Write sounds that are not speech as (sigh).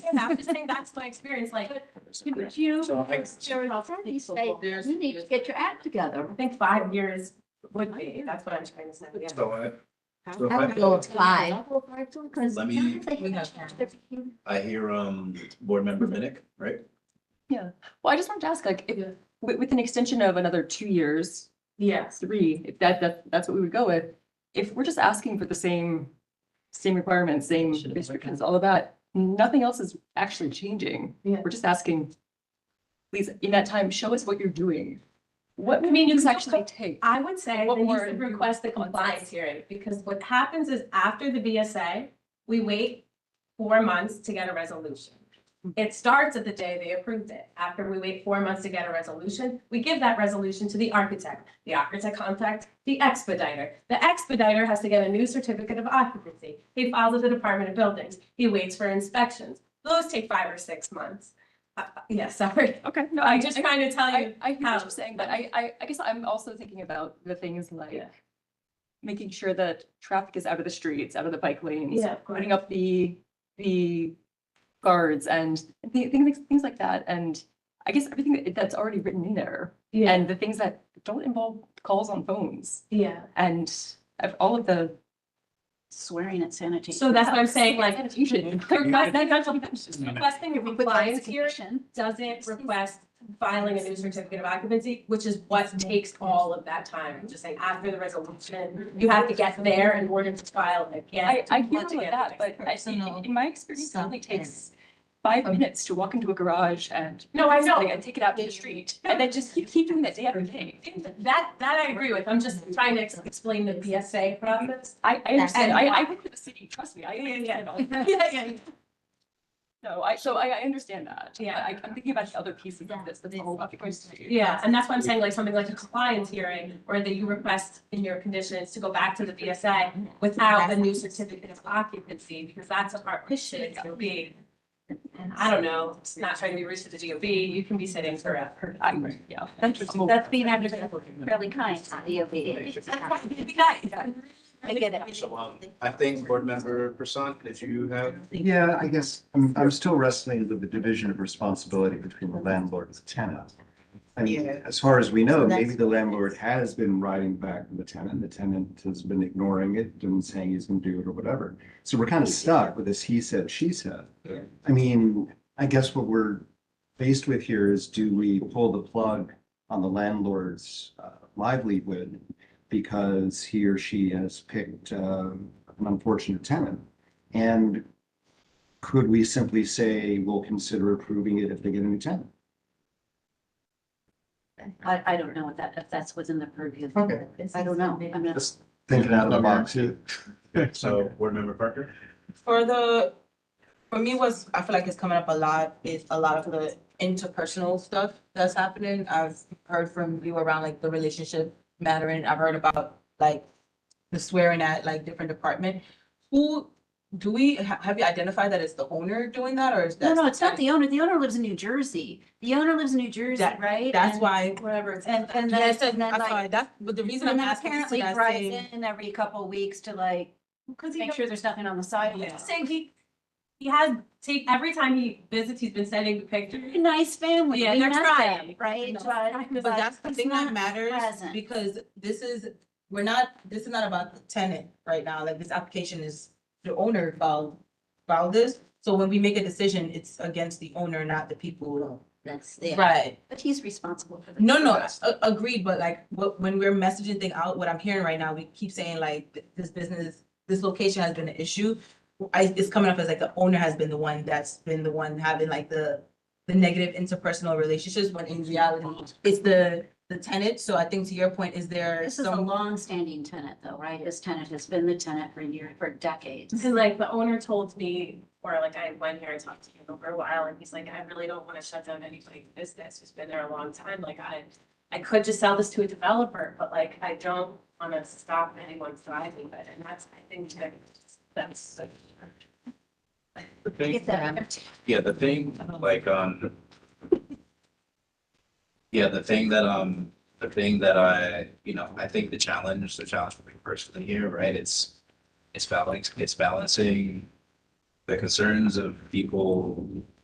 I'm just saying that's my experience, like, could you, So I- there was also They say, There's- you need to get your act together. I think five years would be, that's what I'm trying to say. yeah. So I, so if I would I, go with five. Because Let me- sometimes they We have have- to be- I hear, um, board member Minnick, right? Well, I just wanted to ask, like, if, with, with an extension of another two years, Yes, three, if that, that, that's what we would go with. If we're just asking for the same, same requirements, same restrictions, all of that, nothing else is actually changing. Yeah. We're just asking, please, in that time, show us what you're doing. What I mean, you means don't actually take? I would say What then you more should do you request the want us- compliance hearing, because what happens is after the BSA, we wait four months to get a resolution. It starts at the day they approved it. After we wait four months to get a resolution, we give that resolution to the architect. The architect contacts the expediter. The expediter has to get a new certificate of occupancy. He files with the Department of Buildings. He waits for inspections. Those take five or six months. Uh, uh, Yeah, (laughs) sorry. Okay, no, I'm just trying to tell you. I, I hear how- what you're saying, but I, I, I guess I'm also thinking about the things like Yeah. making sure that traffic is out of the streets, out of the bike lanes, Yeah, of course. putting up the, the guards and thi- things, things like that. And I guess everything that- that's already written in there Yeah, and the things that don't involve calls on phones yeah. and of all of the. Swearing at sanitation. So that's what I'm saying, like, (laughs) Sanitation. Request- that- that's- Requesting a If we put that as a compliance hearing condition, doesn't request filing a new certificate of occupancy, which is what takes all of that time. I'm Just saying, after the resolution, you have to get there in order to file again. I, I hear all want of to get that, the but next I, personal in my experience, it only stuff in. takes five minutes to walk into a garage and No, I something know, and take it out to the street and then just keep, keep doing that day after day. that, that I agree with. I'm just trying to ex- explain the PSA process. I, I understand. And- I, I work for the city, trust me. I understand all (laughs) Yeah, that. yeah. No, I, so I, I understand that. Yeah. I, I'm thinking about the other pieces of this, that's Yeah. all about the question. Yeah, and that's why I'm saying like something like a compliance hearing or that you request in your conditions to go back to the BSA without the new certificate of occupancy, because that's a hard issue it's gonna be. I don't know, it's not trying to be rude to the DOB, you can be sitting forever. I, yeah. that's being fairly kind to the OBA. Be nice. I get it. So, um, I think uh, board member Person, if you have, Yeah, I guess I'm, I'm still wrestling with the division of responsibility between the landlord and the tenant. I mean, as far as we know, maybe the landlord has been writing back to the tenant, the tenant has been ignoring it and saying he's gonna do it or whatever. So we're kind of stuck with this he said, she said. Yeah. I mean, I guess what we're faced with here is do we pull the plug on the landlord's uh, livelihood because he or she has picked um, an unfortunate tenant? And could we simply say we'll consider approving it if they get a new tenant? I, I don't know if that, if that's within the purview. of- Okay. I don't know. I'm not. Just thinking out of the box. so board member Parker? For the, for me was, I feel like it's coming up a lot, is a lot of the interpersonal stuff that's happening. I've heard from you around like the relationship mattering. I've heard about like the swearing at like different department. Who, do we, ha- have you identified that it's the owner doing that or is No, that? no, it's not the owner. The owner lives in New Jersey. The owner lives in New Jersey, That- right? That's And- why, Whatever. it's- And, and yeah, then, it says, and then I'm like, sorry, that's, but the reason and I'm then asking is apparently because I drives see. in every couple weeks to like, Because he make sure there's nothing on the sidewalk. knows- Saying he, he has, take, every time he visits, he's been sending me pictures. Nice family. Yeah, we they're met trying. them, Right? No. But- But But that's the it's thing that not matters, present. because this is, we're not, this is not about the tenant right now, like this application is, the owner filed, filed this. So when we make a decision, it's against the owner, not the people. That's, yeah, Right. but he's responsible for that. No, no, a- agreed, but like, what, when we're messaging thing out, what I'm hearing right now, we keep saying like, th- this business, this location has been an issue. I, it's coming up as like the owner has been the one that's been the one having like the, the negative interpersonal relationships, when in reality, it's the, the tenant, so I think to your point, is there This is a some? long-standing tenant though, right? This tenant has been the tenant for years, for decades. Because like the owner told me, or like I went here and talked to him over a while and he's like, I really don't want to shut down anybody's business who's been there a long time. Like I, I could just sell this to a developer, but like I don't want to stop anyone thriving, but and that's, I think that that's. The thing, Get that. yeah, the thing, like, um, yeah, the thing that, um, the thing that I, you know, I think the challenge, the challenge for me personally here, right, it's, it's balancing, it's balancing the the concerns of people